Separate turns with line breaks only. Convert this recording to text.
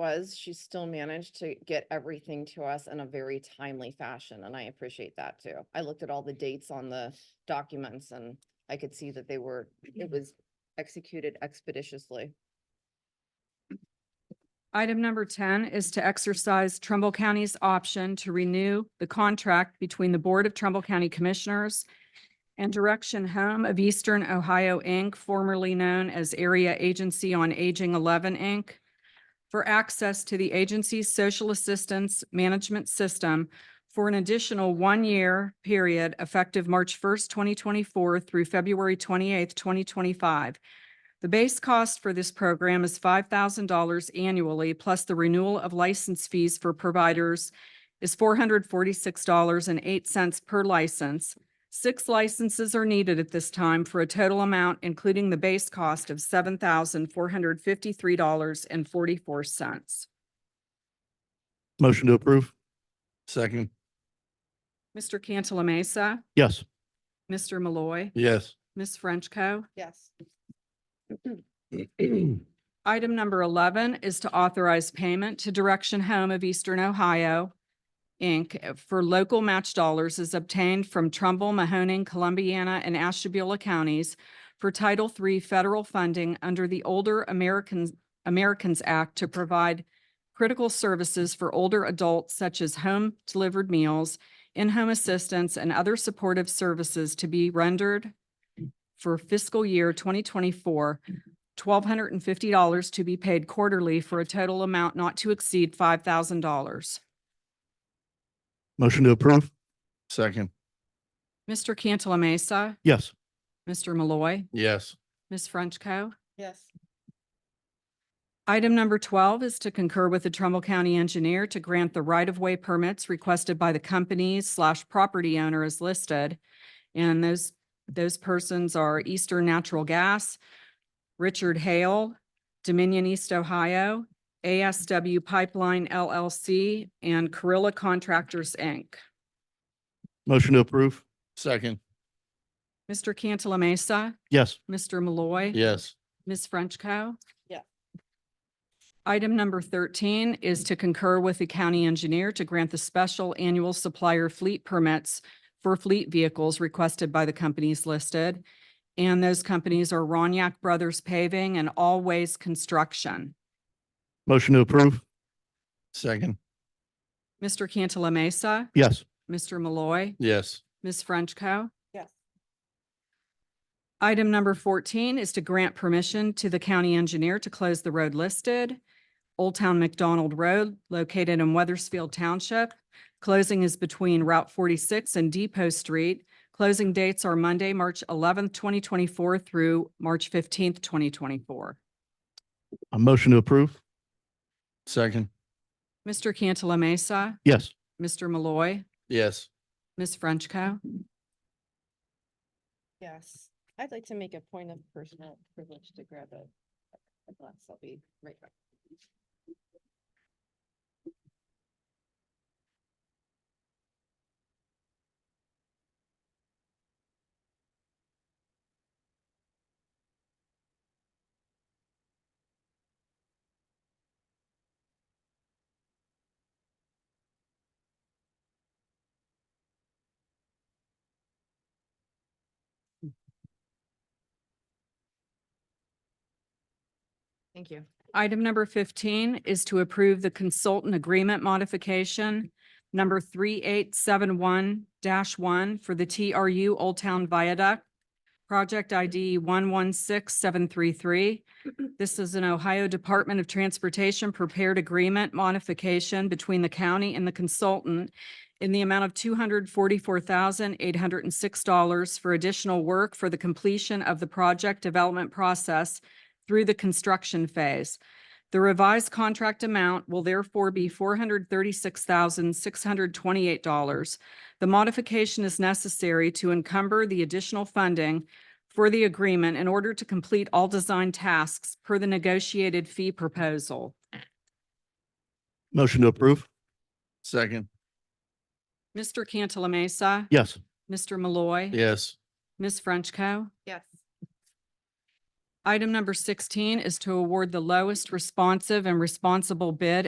was, she still managed to get everything to us in a very timely fashion, and I appreciate that too. I looked at all the dates on the documents and I could see that they were, it was executed expeditiously.
Item number ten is to exercise Trumbull County's option to renew the contract between the Board of Trumbull County Commissioners and Direction Home of Eastern Ohio, Inc., formerly known as Area Agency on Aging Eleven, Inc., for access to the agency's social assistance management system for an additional one-year period effective March first, twenty twenty-four through February twenty-eighth, twenty twenty-five. The base cost for this program is five thousand dollars annually, plus the renewal of license fees for providers is four hundred forty-six dollars and eight cents per license. Six licenses are needed at this time for a total amount, including the base cost of seven thousand four hundred fifty-three dollars and forty-four cents.
Motion to approve. Second.
Mr. Cantala Mesa,
Yes.
Mr. Malloy,
Yes.
Ms. Frenchco.
Yes.
Item number eleven is to authorize payment to Direction Home of Eastern Ohio, Inc. for local match dollars as obtained from Trumbull, Mahoning, Columbiana, and Ashtabula counties for Title III federal funding under the Older Americans, Americans Act to provide critical services for older adults such as home-delivered meals, in-home assistance, and other supportive services to be rendered for fiscal year twenty twenty-four twelve hundred and fifty dollars to be paid quarterly for a total amount not to exceed five thousand dollars.
Motion to approve. Second.
Mr. Cantala Mesa,
Yes.
Mr. Malloy,
Yes.
Ms. Frenchco.
Yes.
Item number twelve is to concur with the Trumbull County Engineer to grant the right-of-way permits requested by the companies slash property owner as listed. And those, those persons are Eastern Natural Gas, Richard Hale, Dominion East Ohio, ASW Pipeline LLC, and Carrilla Contractors, Inc.
Motion to approve. Second.
Mr. Cantala Mesa,
Yes.
Mr. Malloy.
Yes.
Ms. Frenchco.
Yeah.
Item number thirteen is to concur with the county engineer to grant the special annual supplier fleet permits for fleet vehicles requested by the companies listed. And those companies are Roniak Brothers Paving and Always Construction.
Motion to approve. Second.
Mr. Cantala Mesa,
Yes.
Mr. Malloy.
Yes.
Ms. Frenchco.
Yes.
Item number fourteen is to grant permission to the county engineer to close the road listed, Old Town McDonald Road, located in Weathersfield Township. Closing is between Route forty-six and Depot Street. Closing dates are Monday, March eleventh, twenty twenty-four through March fifteenth, twenty twenty-four.
A motion to approve. Second.
Mr. Cantala Mesa,
Yes.
Mr. Malloy,
Yes.
Ms. Frenchco.
Yes. I'd like to make a point of personal privilege to grab a a glass. I'll be right back.
Thank you. Item number fifteen is to approve the consultant agreement modification number three eight seven one one for the TRU Old Town Viaduct. Project ID one one six seven three three. This is an Ohio Department of Transportation prepared agreement modification between the county and the consultant in the amount of two hundred forty-four thousand eight hundred and six dollars for additional work for the completion of the project development process through the construction phase. The revised contract amount will therefore be four hundred thirty-six thousand, six hundred twenty-eight dollars. The modification is necessary to encumber the additional funding for the agreement in order to complete all design tasks per the negotiated fee proposal.
Motion to approve. Second.
Mr. Cantala Mesa,
Yes.
Mr. Malloy,
Yes.
Ms. Frenchco.
Yes.
Item number sixteen is to award the lowest responsive and responsible bid